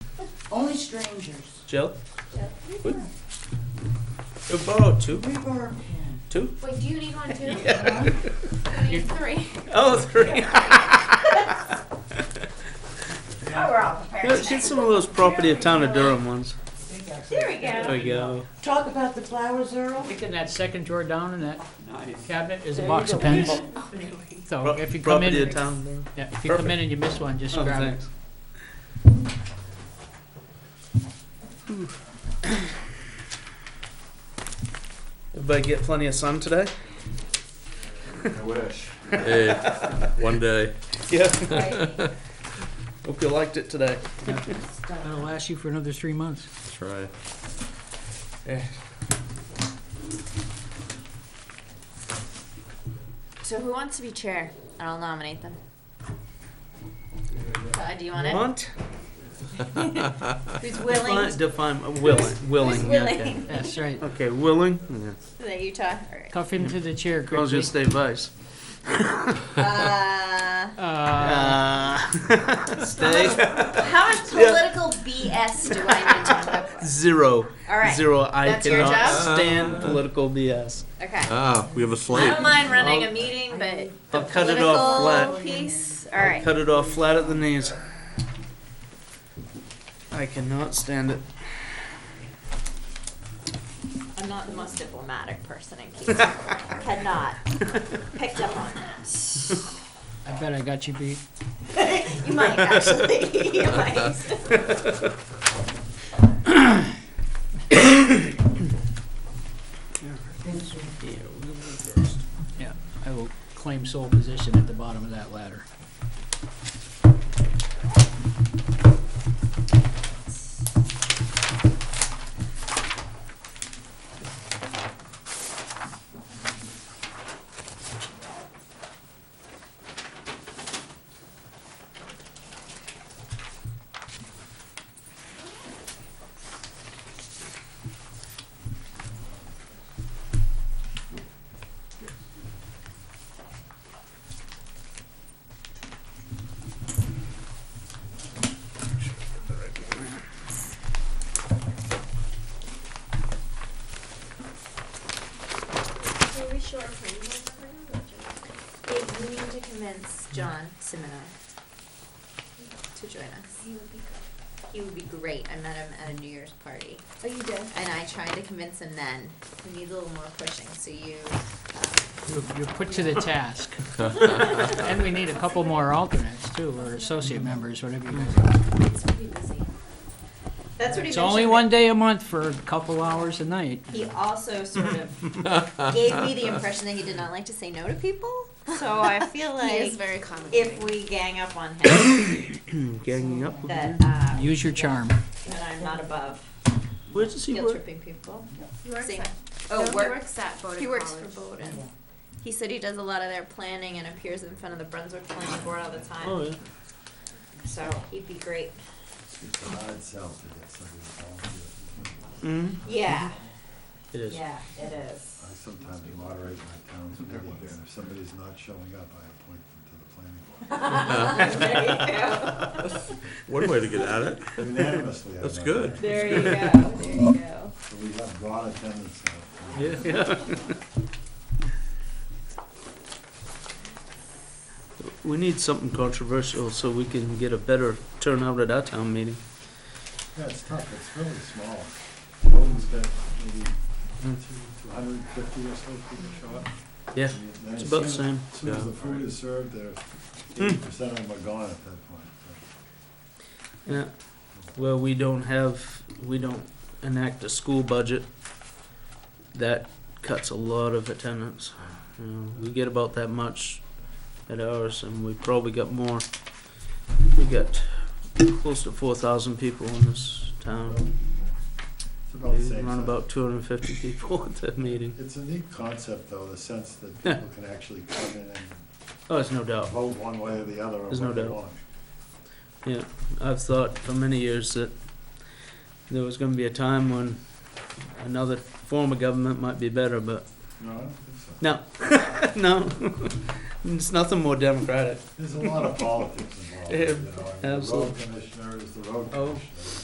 Only strangers. Jill? Yeah. What? You borrow two? We borrow a pen. Two? Wait, do you need one too? Yeah. I need three. Oh, three. Oh, we're all prepared. Let's get some of those property of town of Durham ones. There we go. There we go. Talk about the flowers, Earl. Taking that second drawer down in that Nice. cabinet is a There box you of go. pens. So if you come Property of in, town of Durham. yeah, if you come in and you miss one, just Oh, grab it. thanks. Everybody get plenty of sun today? I wish. Hey, one day. Yeah. Hope you liked it today. That'll last you for another three months. Try. So who wants to be chair? And I'll nominate them. Todd, Uh, do you want it? Want? Who's Define, willing? define, uh, willing, willing. Who's yeah, okay. willing? That's right. Okay, willing? Yeah. Is that you, Todd? All right. Cuff him to the chair Girls quickly. just stay vice. Uh, Uh, Uh, stay how much political BS do I need to talk about? zero. All right. Zero. I That's your cannot job? stand political BS. Okay. Ah, we have a I slate. don't mind running a meeting, but I'll cut it off political flat. piece. All right. Cut it off flat at the knees. I cannot stand it. I'm not the most diplomatic person in case you had not picked up on that. I bet I got you beat. You might actually. you might. Yeah, I will claim sole position at the bottom of that ladder. Are we sure for you guys are bringing Dave, you need to convince John Simino to join us. He would be great. He would be great. I met him at a New Year's party. Oh, you did? And I tried to convince him then. We need a little more pushing, so you, um, You're you're put to the task. And we need a couple more alternates too, or associate members, whatever you guys are. it's pretty busy. That's what he mentioned. It's only one day a month for a couple hours a night. He also sort of gave me the impression that he did not like to say no to people, so I feel like. very If we gang up on him, Ganging up. with that, you. uh, Use your charm. that I'm not above Where does he guilt work? tripping people. He works Same. at, Oh, no, he work- works at Bowdoin He works for College. Bowdoin. He said he does a lot of their planning and appears in front of the Brunswick Planning Board all the time. Oh, yeah. So he'd be great. Odd self to get somebody to volunteer. Mm, Yeah, it is. yeah, it is. I sometimes moderate my town's meetings, and if somebody's not showing up, I appoint them to the planning board. There you One way to get at it. Unanimously. I That's vote good. aye. go. There you go. There you go. So we have broad attendance now. We need something controversial so we can get a better turnout at our town meeting. Yeah, it's tough, it's really small. Bowden's got maybe two hundred and fifty or so people show up. Yeah, And then it's as about the soon- same. Hmm. As soon as Yeah. the food is served, they're, eighty percent of them are gone at that point. Yeah. Well, we don't have, we don't enact a school budget. That cuts a lot of attendance. You know, we get about that much at ours, and we probably got more. We got close to four thousand people in this town. It's about the We same. run size. about two hundred and fifty people at that meeting. It's a neat concept, though, the sense that people can actually come in and Oh, there's no doubt. vote one way or the other on There's no what they doubt. want. I've thought for many years that there was going to be a time when another form of government might be better, but No, I don't think so. no, no, it's nothing more democratic. There's a lot of politics involved, you know. I mean, Absolutely. The road commissioner is the road Oh. commissioner.